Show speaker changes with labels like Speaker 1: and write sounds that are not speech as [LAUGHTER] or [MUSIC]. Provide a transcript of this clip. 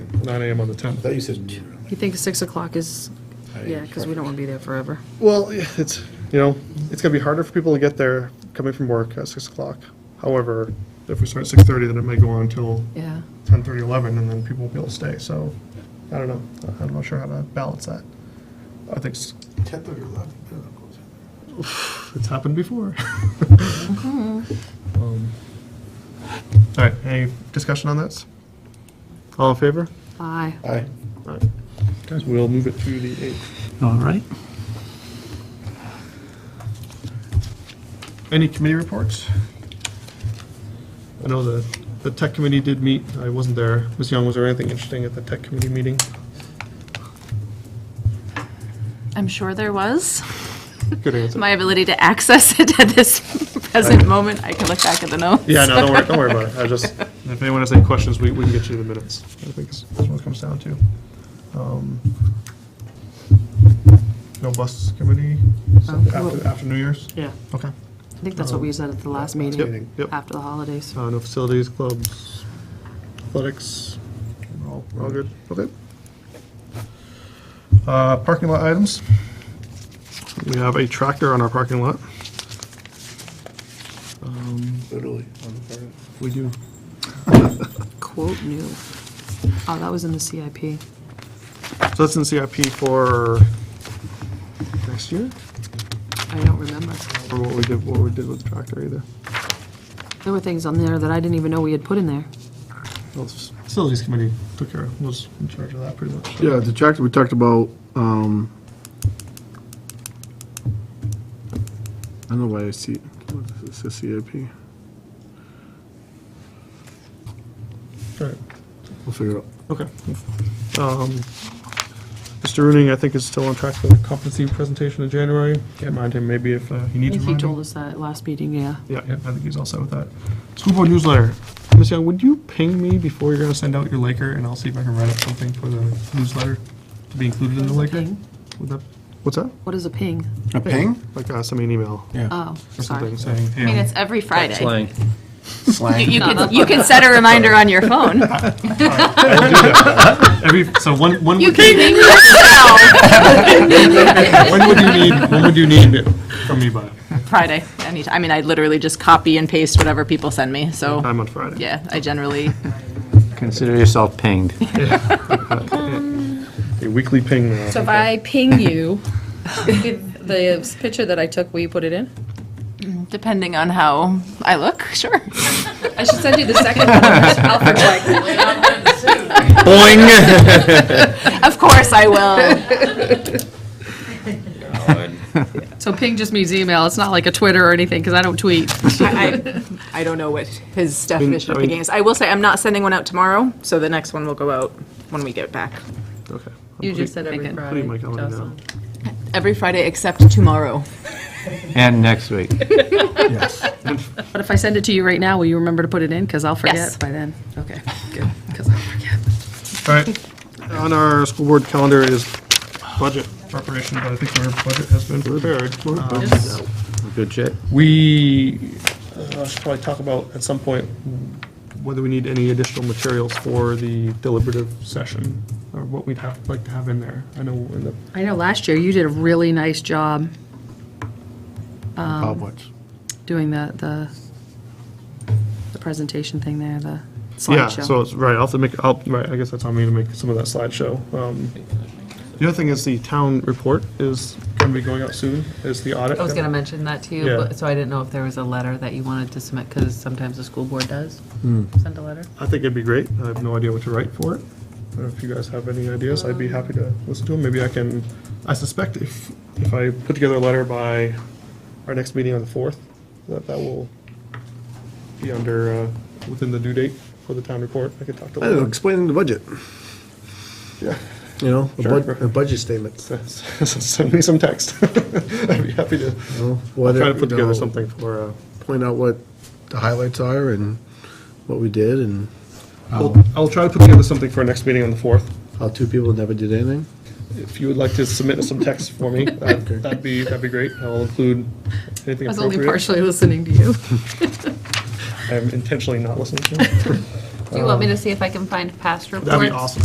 Speaker 1: nine AM on the
Speaker 2: I
Speaker 1: tenth.
Speaker 2: thought you said noon.
Speaker 3: You think 6 o'clock is,
Speaker 2: I-
Speaker 3: yeah, because we don't want to be there forever.
Speaker 1: Well, yeah, it's, you know, it's gonna be harder for people to get there coming from work at six o'clock. However, if we start at six thirty, then it may go on till
Speaker 3: Yeah.
Speaker 1: ten thirty, eleven, and then people will be able to stay, so, I don't know, I'm not sure how to balance that. I think s-
Speaker 2: Tenth or eleventh, I don't know.
Speaker 1: it's happened before. [LAUGHS] Um, All right, any discussion on this? All in favor?
Speaker 3: Aye.
Speaker 2: Aye.
Speaker 1: All right. Guys, we'll move it to the eighth.
Speaker 4: All right.
Speaker 1: Any committee reports? I know the, the tech committee did meet, I wasn't there. Ms. Young, was there anything interesting at the tech committee meeting?
Speaker 5: I'm sure there was.
Speaker 1: Good answer.
Speaker 5: My ability to access it at this [LAUGHS] present moment, I can look back at the notes.
Speaker 1: Yeah, no, don't worry, don't worry about it. I just, [LAUGHS] if anyone has any questions, we, we can get you the minutes. I think that's that's what it comes down to. Um, No bus committee
Speaker 3: Um,
Speaker 1: after, after New Year's?
Speaker 3: Yeah,
Speaker 1: Okay.
Speaker 3: I think that's what we said at the last
Speaker 1: Yep,
Speaker 3: meeting,
Speaker 1: yep.
Speaker 3: after the holidays.
Speaker 1: Uh, no facilities, clubs, athletics, we're all, we're all good, okay. Uh, parking lot items. We have a tractor on our parking lot. Um,
Speaker 2: Literally, on the part of.
Speaker 1: We do.
Speaker 3: Quote new. Oh, that was in the CIP.
Speaker 1: So that's in CIP for next year,
Speaker 3: I don't remember.
Speaker 1: or what we did, what we did with the tractor either.
Speaker 3: There were things on there that I didn't even know we had put in there.
Speaker 1: Well, s- Facilities committee took care of, was in charge of that pretty much.
Speaker 6: Yeah, the tractor, we talked about, um, I don't know why I see, it's a CIP.
Speaker 1: All right.
Speaker 6: We'll figure it out.
Speaker 1: Okay. Um, Mr. Rooney, I think, is still on track for the competency presentation in January. Can't mind him, maybe if uh, he needs
Speaker 3: If he
Speaker 1: reminding.
Speaker 3: told us that last meeting, yeah.
Speaker 1: Yeah, yeah, I think he's all set with that. School board newsletter. Ms. Young, would you ping me before you're gonna send out your Laker, and I'll see if I can write up something for the newsletter to be included in the Laker?
Speaker 3: Ping?
Speaker 1: Would that, what's that?
Speaker 3: What is a ping?
Speaker 6: A ping?
Speaker 1: Like, uh, send me an email
Speaker 3: Oh,
Speaker 1: or something
Speaker 3: sorry.
Speaker 1: saying,
Speaker 5: I mean,
Speaker 1: hey,
Speaker 5: it's every Friday.
Speaker 7: Slang.
Speaker 5: You
Speaker 6: Slang.
Speaker 5: you can, you can set a reminder on your phone.
Speaker 1: I'm- every, so when, when
Speaker 5: You
Speaker 1: would,
Speaker 5: can name yourself.
Speaker 1: when would you need, when would you need it from me by?
Speaker 5: Friday, anytime. I mean, I literally just copy and paste whatever people send me, so,
Speaker 1: Time on Friday.
Speaker 5: yeah, I generally,
Speaker 7: Consider yourself pinged.
Speaker 1: A weekly ping. uh,
Speaker 8: So if I ping you with the picture that I took, will you put it in?
Speaker 5: depending on how I look, [LAUGHS] sure.
Speaker 8: I should send you the second one. I'll protect it.
Speaker 7: Boing!
Speaker 5: [LAUGHS] Of course I will.
Speaker 8: So ping just means email. It's not like a Twitter or anything, because I don't tweet.
Speaker 5: I, I I don't know what his definition of picking is. I will say, I'm not sending one out tomorrow, so the next one will go out when we get back.
Speaker 1: Okay.
Speaker 8: You just said every Friday.
Speaker 1: Putting my calendar down.
Speaker 5: Every Friday except tomorrow.
Speaker 7: And next week.
Speaker 8: But if I send it to you right now, will you remember to put it in? Because I'll
Speaker 5: Yes.
Speaker 8: forget by then. Okay, good, because I'll forget.
Speaker 1: All right, on our school board calendar is budget preparation, but I think our budget has been prepared. Um,
Speaker 7: Good check.
Speaker 1: We uh, should probably talk about at some point whether we need any additional materials for the deliberative session, or what we'd have, like to have in there. I know in the,
Speaker 8: I know last year you did a really nice job
Speaker 6: Bob Watts.
Speaker 8: doing the, the, the presentation thing there, the
Speaker 1: yeah,
Speaker 8: slideshow.
Speaker 1: so, it's- right, I'll have to make, I'll, right, I guess that's on me to make some of that slideshow. Um, The other thing is the town report is going to be going out soon, is the audit.
Speaker 9: I was going to mention that to
Speaker 1: Yeah.
Speaker 9: you, but, so I didn't know if there was a letter that you wanted to submit, because sometimes the school board does
Speaker 1: Hmm.
Speaker 9: send a letter.
Speaker 1: I think it'd be great. I have no idea what to write for it. But if you guys have any ideas, I'd be happy to listen to them. Maybe I can, I suspect if, if I put together a letter by our next meeting on the 4th, that that will be under, uh, within the due date for the town report. I could talk to
Speaker 6: I don't know,
Speaker 1: Laura.
Speaker 6: explaining the budget.
Speaker 1: Yeah.
Speaker 6: You know, a
Speaker 1: Sure.
Speaker 6: bud- a budget statement.
Speaker 1: [LAUGHS] Send me some text. [LAUGHS] I'd be happy to
Speaker 6: you know,
Speaker 1: I'll
Speaker 6: whether,
Speaker 1: try to put
Speaker 6: you know,
Speaker 1: together something for, uh,
Speaker 6: Point out what the highlights are and what we did and Oh.
Speaker 1: I'll, I'll try to put together something for our next meeting on the 4th.
Speaker 6: how two people never did anything.
Speaker 1: If you would like to submit some text for me, that'd that'd be, that'd be great. I'll include anything appropriate.
Speaker 8: I was only partially listening to you.
Speaker 1: I'm intentionally not listening to it.
Speaker 9: Do you want me to see if I can find past reports?
Speaker 1: That'd be awesome.